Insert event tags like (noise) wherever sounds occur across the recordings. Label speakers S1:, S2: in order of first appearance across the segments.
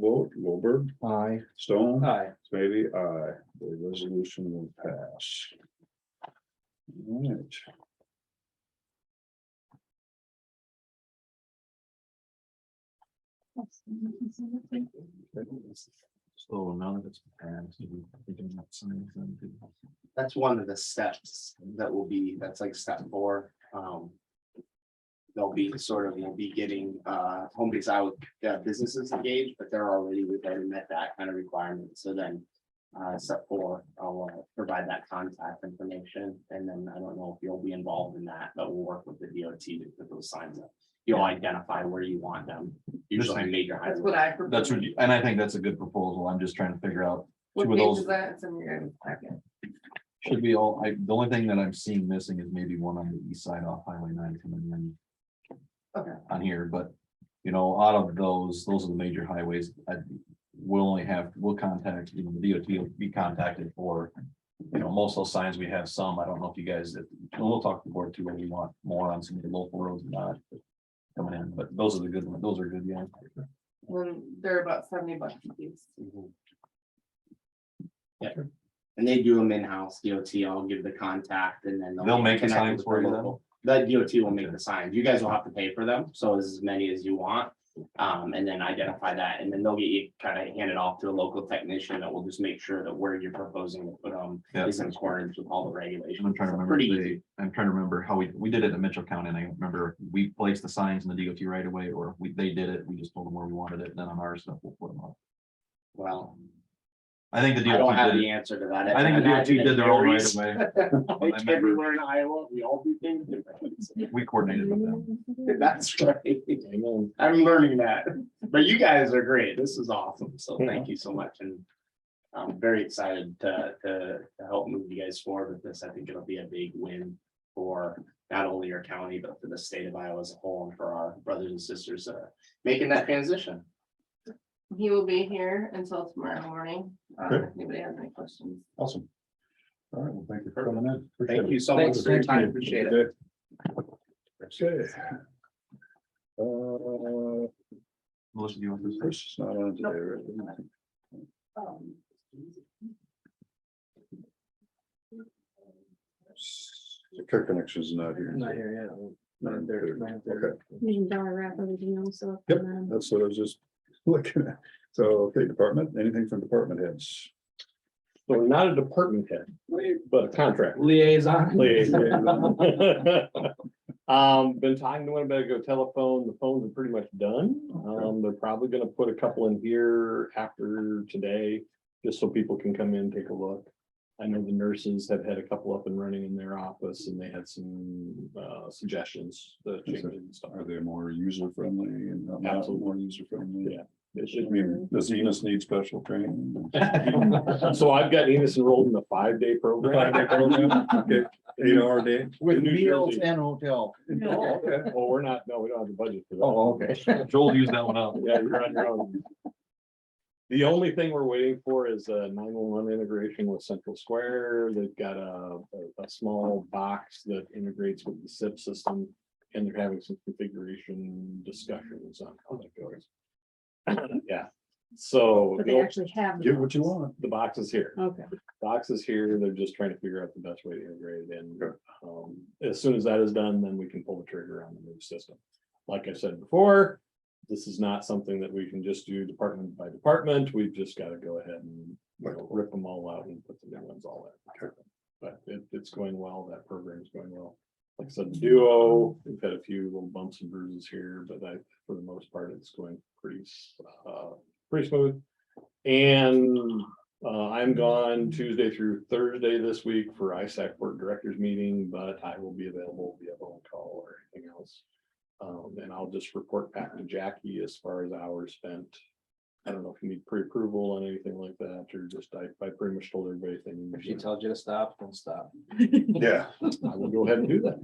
S1: Vote, Goldberg,
S2: Aye.
S1: Stone.
S2: Aye.
S1: Maybe I, the resolution will pass. Alright.
S2: So none of it's passed. We did not sign anything.
S3: that's one of the steps that will be, that's like step four, um. They'll be sort of, you'll be getting uh home base out, uh, businesses engaged, but they're already, we've already met that kind of requirement, so then. Uh, step four, I'll uh, provide that contact information, and then I don't know if you'll be involved in that, but we'll work with the DOT to put those signs up. You'll identify where you want them, usually on major
S4: That's what
S3: highways.
S4: I. prefer.
S2: That's what you, and I think that's a good proposal. I'm just trying to figure out,
S4: What
S2: two of
S4: page
S2: those-
S4: is that? It's in your packet.
S2: should we all, I, the only thing that I'm seeing missing is maybe one on the east side off Highway nine coming in.
S4: Okay.
S2: On here, but, you know, out of those, those are the major highways. I, we'll only have, we'll contact, you know, the DOT will be contacted for. You know, most of those signs, we have some. I don't know if you guys, and we'll talk to the board too, whether you want more on some of the local roads or not. Coming in, but those are the good ones. Those are good, yeah.
S4: Then they're about seventy bucks a piece.
S3: Mhm. Yeah, Mm-hmm. and they do them in-house, DOT, I'll give the contact and then.
S2: They'll make the
S3: connect
S2: signs
S3: with
S2: for you then?
S3: local- The DOT will make the signs, you guys will have to pay for them, so as many as you want. Um, and then identify that, and then they'll get you kind of handed off to a local technician that will just make sure that where you're proposing to put them
S2: Yeah.
S3: is in accordance with all
S2: And
S3: the regulations.
S2: I'm trying to
S3: So
S2: remember,
S3: Pretty
S2: if
S3: easy,
S2: they- I'm trying to remember how we, we did it in Mitchell County, and I remember we placed the signs in the DOT right away, or we, they did it, we just told them where we wanted it, and then on our stuff, we'll put them up.
S3: well,
S2: I think the
S3: I don't
S2: DOT
S3: have
S2: did,
S3: the
S2: it.
S3: answer to that.
S2: I think the DOT
S3: Imagine
S2: did their own right
S3: varies
S2: away,
S3: (laughs) Everywhere in Iowa, we all do things differently.
S2: we coordinated with
S3: Mm-hmm.
S2: them.
S3: (laughs) That's right. I'm learning that, but you guys are great. This is awesome. So thank you so much and. I'm very excited to, to, to help move you guys forward with this. I think it'll be a big win for not only your county, but for the state of Iowa as a whole and for our brothers and sisters, uh, making that transition.
S4: He will be here until tomorrow morning. Uh,
S1: Okay.
S4: if anybody has any questions?
S1: Awesome. All right, well, thank you for coming in. Appreciate
S3: Thank
S1: it.
S3: you so much for your
S1: Thank
S3: time.
S1: you.
S3: Appreciate it.
S1: Okay. Uh,
S2: Melissa, do you want this?
S1: Chris is not on today, right? Care connection's not here.
S5: Not here yet.
S1: Not
S5: Not there,
S1: there.
S5: not
S1: Okay.
S5: there.
S6: We can dollar wrap everything else up.
S1: Yep.
S6: and then-
S1: That's what I was just (laughs) looking at. So, okay, department, anything from department heads?
S5: So not a department head, but a contract.
S2: Liaison.
S1: (laughs)
S5: (laughs) Um, been talking to Winnebago telephone, the phones are pretty much done. Um, they're probably gonna put a couple in here after today, just so people can come in, take a look. I know the nurses have had a couple up and running in their office and they had some uh suggestions, the changes and stuff.
S1: Are they more user friendly and not- not
S5: Absolutely.
S1: more user friendly?
S5: Yeah. It
S1: I
S5: should be-
S1: mean, does Enos need special
S5: (laughs)
S1: training?
S5: So I've got Enos enrolled in the five-day
S1: (laughs)
S5: program.
S1: Eight hour day?
S5: With meals
S2: and hotel.
S5: Oh, okay. Well, we're not, no, we don't have the budget for that.
S2: Oh, okay. (laughs) Joel used that one up.
S5: Yeah, you're on your own. The only thing we're waiting for is a nine-one-one integration with Central Square. They've got a, a, a small box that integrates with the SIP system. And they're having some configuration discussions on how that goes. (clears throat) Yeah, so
S6: But they
S5: the
S6: actually have. the
S1: Get what you
S6: box.
S1: want.
S5: the box is here
S6: Okay.
S5: box is here, they're just trying to figure out the best way to integrate it in.
S1: Sure.
S5: Um, as soon as that is done, then we can pull the trigger on the new system. Like I said before, this is not something that we can just do department by department, we've just gotta go ahead and, you know, rip them all out and put the new ones all in. But it, it's going well, that program's going well. Like I said, the duo, we've had a few little bumps and bruises here, but I, for the most part, it's going pretty, s- uh, pretty smooth. And uh, I'm gone Tuesday through Thursday this week for ISAC Board Directors Meeting, but I will be available via phone call or anything else. Um, and I'll just report back to Jackie as far as hours spent. I don't know if you need pre-approval on anything like that, or just I, I pretty much told everybody thing.
S2: tells you to stop, don't stop.
S1: Yeah.
S5: I will go ahead and do that.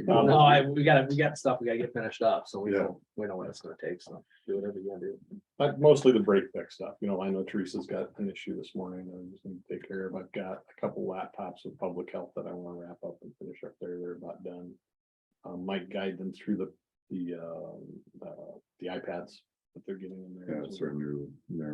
S7: No, Um, no, I, we gotta, we got stuff, we gotta get finished up, so we
S1: Yeah.
S7: know, we know what it's gonna take, so do whatever you wanna do.
S5: But mostly the break fix stuff, you know, I know Teresa's got an issue this morning that I'm just gonna take care of. I've got a couple laptops with public health that I wanna wrap up and finish up there. They're about done. Um, might guide them through the, the, um, uh, the iPads that they're getting in there.
S1: Yeah, it's our new, new